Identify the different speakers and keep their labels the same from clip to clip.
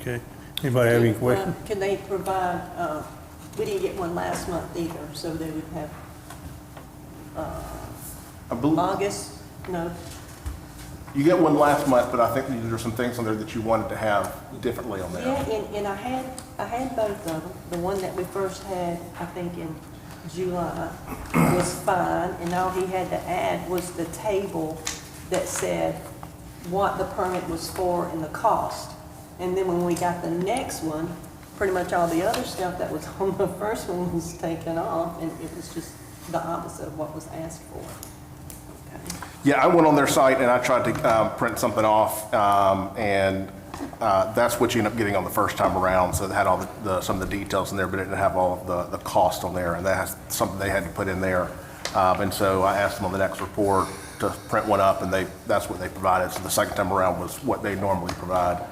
Speaker 1: Okay. Anybody have any questions?
Speaker 2: Uh, Can they provide, uh, we didn't get one last month either, so they would have
Speaker 3: I believe,
Speaker 2: August, no,
Speaker 3: you got one last month, but I think there were some things on there that you wanted to have differently on
Speaker 2: Yeah,
Speaker 3: there.
Speaker 2: and, and I had, I had both of them. The one that we first had, I think in July, was fine, and all he had to add was the table that said what the permit was for and the cost. And then when we got the next one, pretty much all the other stuff that was on the first one was taken off, and it was just the opposite of what was asked for. Okay.
Speaker 3: Yeah, I went on their site and I tried to um, print something off, um, and uh, that's what you end up getting on the first time around. So it had all the- the, some of the details in there, but it didn't have all of the, the cost on there, and that's something they had to put in there. Um, And so I asked them on the next report to print one up, and they, that's what they provided. So the second time around was what they normally provide.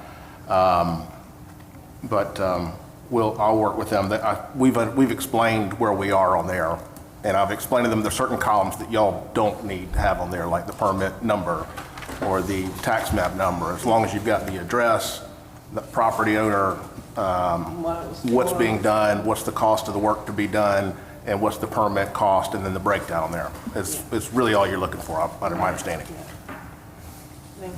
Speaker 3: But um, we'll, I'll work with them. That- I- We've, uh, we've explained where we are on there, and I've explained to them there's certain columns that y'all don't need to have on there, like the permit number or the tax map number. As long as you've got the address, the property owner, um,
Speaker 2: What it was
Speaker 3: what's
Speaker 2: for.
Speaker 3: being done, what's the cost of the work to be done, and what's the permit cost, and then the breakdown there. It's, it's really all you're looking for, uh, under my understanding.
Speaker 2: Yeah. Thank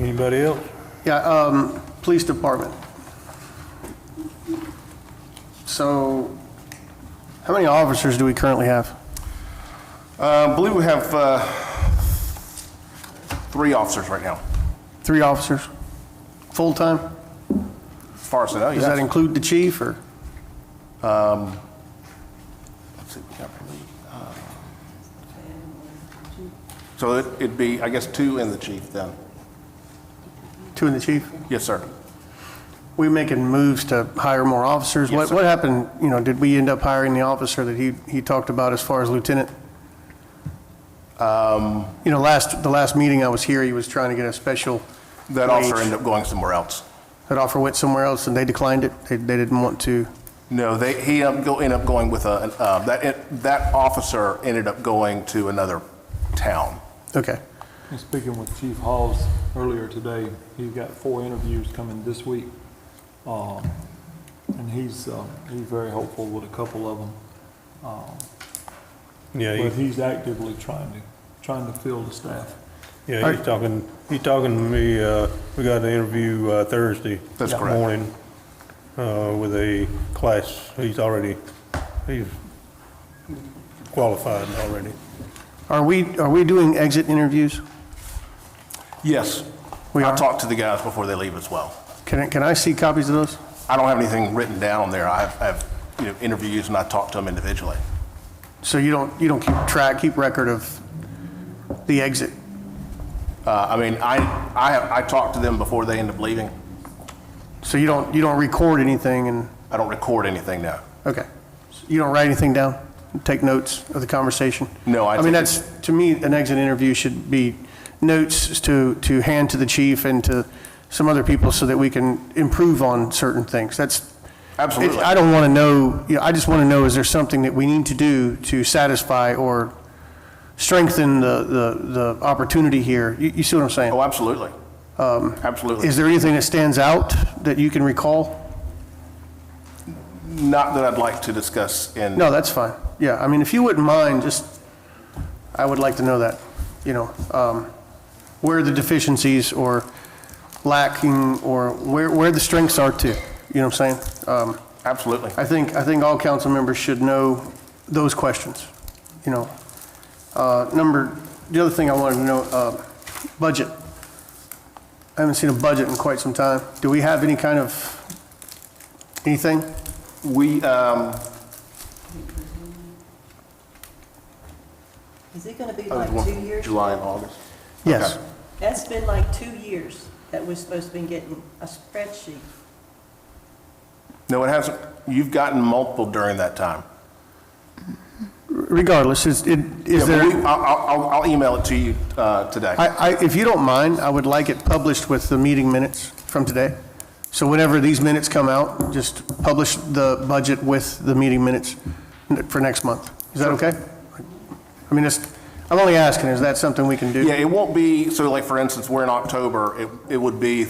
Speaker 2: you.
Speaker 1: Anybody else?
Speaker 4: Yeah, um, police department. So, how many officers do we currently have?
Speaker 3: Uh, I believe we have uh, three officers right now,
Speaker 4: Three officers? Full-time?
Speaker 3: as far as I know.
Speaker 4: Does that
Speaker 3: yes.
Speaker 4: include the chief, or?
Speaker 3: So it- it'd be, I guess, two and the chief then?
Speaker 4: Two and the chief?
Speaker 3: Yes, sir.
Speaker 4: We making moves to hire more officers?
Speaker 3: Yes,
Speaker 4: What
Speaker 3: sir.
Speaker 4: What happened, you know, did we end up hiring the officer that he, he talked about as far as lieutenant?
Speaker 3: Um.
Speaker 4: You know, last, the last meeting I was here, he was trying to get a special
Speaker 3: That officer
Speaker 4: wage.
Speaker 3: ended up going somewhere else.
Speaker 4: That offer went somewhere else, and they declined it? They They didn't want to?
Speaker 3: No, they, he up- go- ended up going with a, an, uh, that, it- that officer ended up going to another town.
Speaker 4: Okay.
Speaker 5: And speaking with Chief Hawes earlier today, he's got four interviews coming this week. Um, And he's, uh, he's very hopeful with a couple of them.
Speaker 1: Yeah,
Speaker 5: But
Speaker 1: he-
Speaker 5: he's actively trying to, trying to fill the staff.
Speaker 1: yeah, he's talking, he's talking to me, uh, we got an interview uh, Thursday.
Speaker 3: That's correct.
Speaker 1: Morning, uh, with a class, he's already, he's qualified already.
Speaker 4: Are we, are we doing exit interviews?
Speaker 3: Yes.
Speaker 4: We
Speaker 3: I
Speaker 4: are?
Speaker 3: talked to the guys before they leave as well.
Speaker 4: Can, I- can I see copies of those?
Speaker 3: I don't have anything written down on there. I have, I have, you know, interviews and I talked to them individually.
Speaker 4: So you don't, you don't keep track, keep record of the exit?
Speaker 3: Uh, I mean, I, I have, I talked to them before they end up leaving.
Speaker 4: So you don't, you don't record anything and,
Speaker 3: I don't record anything now.
Speaker 4: okay. You don't write anything down, take notes of the conversation?
Speaker 3: No, I
Speaker 4: I mean,
Speaker 3: take-
Speaker 4: that's, to me, an exit interview should be notes to, to hand to the chief and to some other people so that we can improve on certain things. That's,
Speaker 3: Absolutely.
Speaker 4: It- I don't want to know, you know, I just want to know, is there something that we need to do to satisfy or strengthen the, the, the opportunity here? You, you see what I'm
Speaker 3: Oh,
Speaker 4: saying?
Speaker 3: absolutely. Um, Absolutely.
Speaker 4: Is there anything that stands out that you can recall?
Speaker 3: Not that I'd like to discuss in.
Speaker 4: No, that's fine. Yeah, I mean, if you wouldn't mind, just, I would like to know that, you know, um, where the deficiencies or lacking, or where, where the strengths are too, you know what I'm saying? Um,
Speaker 3: Absolutely.
Speaker 4: I think, I think all council members should know those questions, you know. Uh, Number, the other thing I wanted to know, uh, budget. I haven't seen a budget in quite some time. Do we have any kind of, anything?
Speaker 3: We, um,
Speaker 2: Is it gonna be
Speaker 3: I
Speaker 2: like
Speaker 3: was
Speaker 2: two
Speaker 3: wondering,
Speaker 2: years?
Speaker 3: oh, July and August.
Speaker 4: Yes.
Speaker 2: That's been like two years that we're supposed to be getting a spreadsheet.
Speaker 3: No, it hasn't. You've gotten multiple during that time.
Speaker 4: Regardless, is, it- is
Speaker 3: Yeah, but we-
Speaker 4: there,
Speaker 3: I'll, I'll- I'll- I'll email it to you uh, today.
Speaker 4: I, I, if you don't mind, I would like it published with the meeting minutes from today. So whenever these minutes come out, just publish the budget with the meeting minutes for next month. Is that okay? I mean, it's, I'm only asking, is that something we can do?
Speaker 3: Yeah, it won't be, so like, for instance, we're in October. It, it would be